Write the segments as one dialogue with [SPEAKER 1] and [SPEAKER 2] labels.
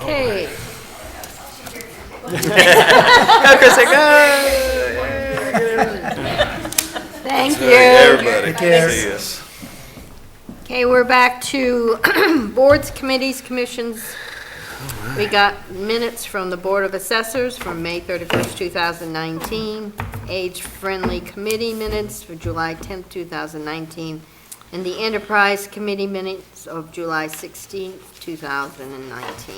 [SPEAKER 1] Okay.
[SPEAKER 2] Chris, like, "Ah."
[SPEAKER 1] Thank you.
[SPEAKER 2] Everybody.
[SPEAKER 3] you.
[SPEAKER 2] See us.
[SPEAKER 1] Okay, we're back to boards, committees, commissions. We got minutes from the Board of Assessors from May 31st, 2019, Age-Friendly Committee minutes for July 10th, 2019, and the Enterprise Committee minutes of July 16th, 2019.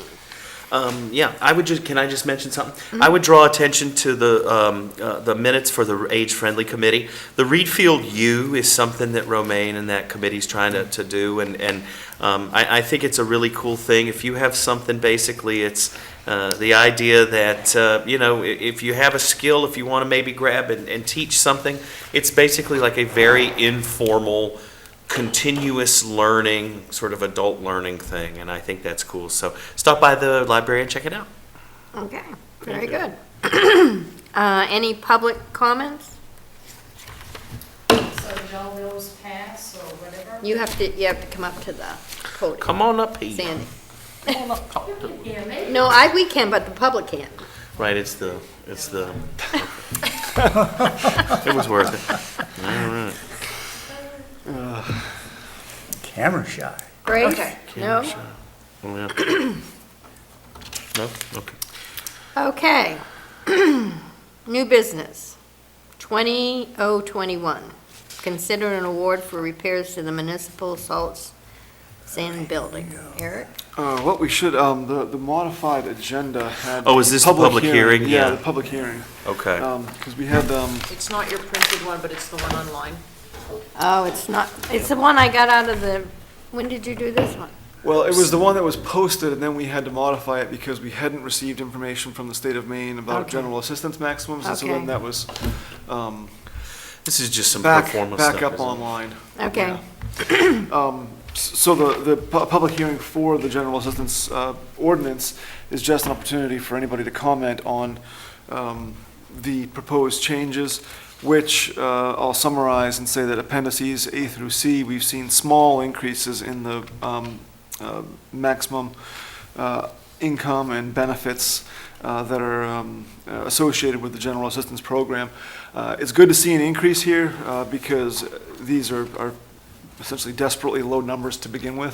[SPEAKER 2] Um, yeah, I would just, can I just mention something? I would draw attention to the, um, uh, the minutes for the age-friendly committee. The Reed Field U is something that Romaine and that committee's trying to, to do, and, and, um, I, I think it's a really cool thing. If you have something, basically, it's, uh, the idea that, uh, you know, i- if you have a skill, if you wanna maybe grab and, and teach something, it's basically like a very informal, continuous learning, sort of adult learning thing, and I think that's cool. So stop by the library and check it out.
[SPEAKER 1] Okay, very good. Uh, Any public comments?
[SPEAKER 3] So no bills pass or whatever?
[SPEAKER 1] You have to, you have to come up to the podium,
[SPEAKER 2] Come on up here.
[SPEAKER 1] Sandy.
[SPEAKER 3] You can hear me.
[SPEAKER 1] No, I, we can, but the public can't.
[SPEAKER 2] Right, it's the, it's the. It was worth it.
[SPEAKER 4] Camera shy.
[SPEAKER 1] Grace?
[SPEAKER 3] Okay.
[SPEAKER 1] No?
[SPEAKER 2] Yeah. No, okay.
[SPEAKER 1] Okay. New business, 20021. Consider an award for repairs to the municipal salts sand building. Eric?
[SPEAKER 5] Uh, What we should, um, the the modified agenda had.
[SPEAKER 2] Oh, is this the public hearing?
[SPEAKER 5] Yeah,
[SPEAKER 2] Yeah.
[SPEAKER 5] the public hearing.
[SPEAKER 2] Okay.
[SPEAKER 5] Because we had, um,
[SPEAKER 6] It's not your printed one, but it's the one online.
[SPEAKER 1] Oh, it's not, it's the one I got out of the, when did you do this one?
[SPEAKER 5] well, it was the one that was posted, and then we had to modify it because we hadn't received information from the state of Maine about
[SPEAKER 1] Okay.
[SPEAKER 5] general assistance maximums. And so then
[SPEAKER 1] Okay.
[SPEAKER 5] that was um,
[SPEAKER 2] This is just some
[SPEAKER 5] back,
[SPEAKER 2] performance stuff.
[SPEAKER 5] back up
[SPEAKER 2] isn't it?
[SPEAKER 5] online.
[SPEAKER 1] Okay,
[SPEAKER 5] Um, s- So the, the pu- public hearing for the general assistance uh, ordinance is just an opportunity for anybody to comment on um, the proposed changes, which uh, I'll summarize and say that appendices A through C, we've seen small increases in the um, uh, maximum uh, income and benefits uh, that are um, uh, associated with the general assistance program. Uh, It's good to see an increase here uh, because these are are essentially desperately low numbers to begin with.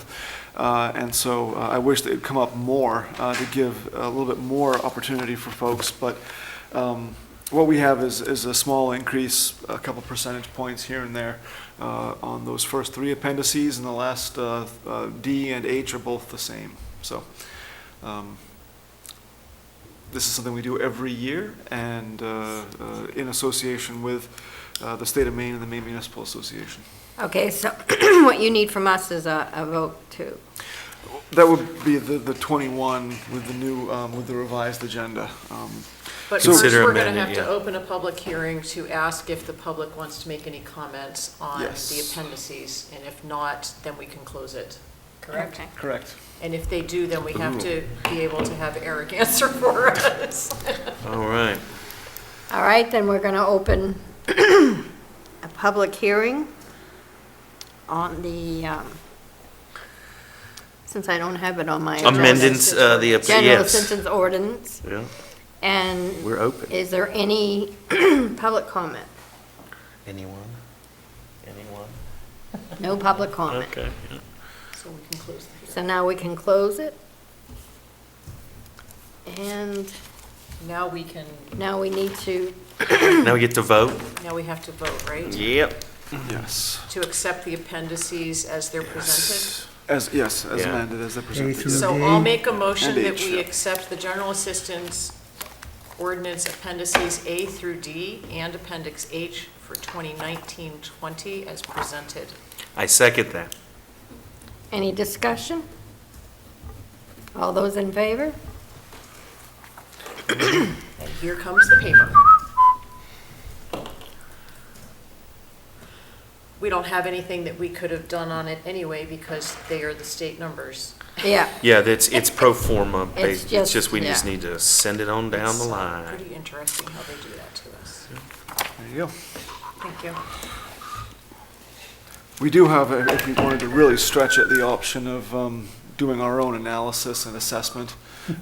[SPEAKER 5] Uh, And so uh, I wish they'd come up more uh, to give a little bit more opportunity for folks. But um, what we have is, is a small increase, a couple percentage points here and there uh, on those first three appendices, and the last uh, uh, D and H are both the same. So um, this is something we do every year and uh, uh, in association with uh, the state of Maine and the Maine Municipal Association.
[SPEAKER 1] okay, so what you need from us is a, a vote to,
[SPEAKER 5] That would be the, the 21 with the new, um, with the revised agenda. Um,
[SPEAKER 6] But
[SPEAKER 5] So-
[SPEAKER 6] first,
[SPEAKER 2] Consider
[SPEAKER 6] we're going to
[SPEAKER 2] amendment,
[SPEAKER 6] have to
[SPEAKER 2] yeah.
[SPEAKER 6] open a public hearing to ask if the public wants to make any comments on the
[SPEAKER 5] Yes.
[SPEAKER 6] appendices. And if not, then we can close it, correct?
[SPEAKER 1] okay.
[SPEAKER 5] Correct.
[SPEAKER 6] And if they do, then we have to be able to have Eric answer for us.
[SPEAKER 2] All right.
[SPEAKER 1] All right, then we're going to open a public hearing on the, um, since I don't have it on my. agenda.
[SPEAKER 2] Amendments, uh, the, yes.
[SPEAKER 1] General sentence ordinance,
[SPEAKER 2] Yeah,
[SPEAKER 1] and
[SPEAKER 2] we're open.
[SPEAKER 1] is there any public comment?
[SPEAKER 2] Anyone? Anyone?
[SPEAKER 1] No public comment.
[SPEAKER 2] Okay. yeah.
[SPEAKER 6] So we can close the
[SPEAKER 1] So now we can close it. And
[SPEAKER 6] hearing. Now we can,
[SPEAKER 1] now we need to,
[SPEAKER 2] Now we get to vote?
[SPEAKER 6] now we have to vote, right?
[SPEAKER 2] Yep.
[SPEAKER 5] Yes.
[SPEAKER 6] To accept the appendices as they're presented?
[SPEAKER 5] As, yes, as
[SPEAKER 2] Yeah.
[SPEAKER 5] amended, as they
[SPEAKER 4] through-
[SPEAKER 5] presented.
[SPEAKER 6] So
[SPEAKER 4] Through
[SPEAKER 6] I'll
[SPEAKER 4] the-
[SPEAKER 6] make a motion
[SPEAKER 5] And
[SPEAKER 6] that
[SPEAKER 5] H,
[SPEAKER 6] we
[SPEAKER 5] yeah.
[SPEAKER 6] accept the general assistance ordinance appendices A through D and appendix H for 2019-20 as presented.
[SPEAKER 2] I second that.
[SPEAKER 1] any discussion? All those in favor?
[SPEAKER 6] And here comes the paper. We don't have anything that we could have done on it anyway because they are the state numbers.
[SPEAKER 1] Yeah,
[SPEAKER 2] Yeah, that's, it's pro forma,
[SPEAKER 1] It's
[SPEAKER 2] based. it's
[SPEAKER 1] just-
[SPEAKER 2] just, we just
[SPEAKER 1] yeah.
[SPEAKER 2] need to send it on down the
[SPEAKER 6] It's, uh,
[SPEAKER 2] line.
[SPEAKER 6] Pretty interesting how they do that to us.
[SPEAKER 5] There you go.
[SPEAKER 6] Thank you.
[SPEAKER 5] We do have, uh, if we wanted to really stretch it, the option of um, doing our own analysis and assessment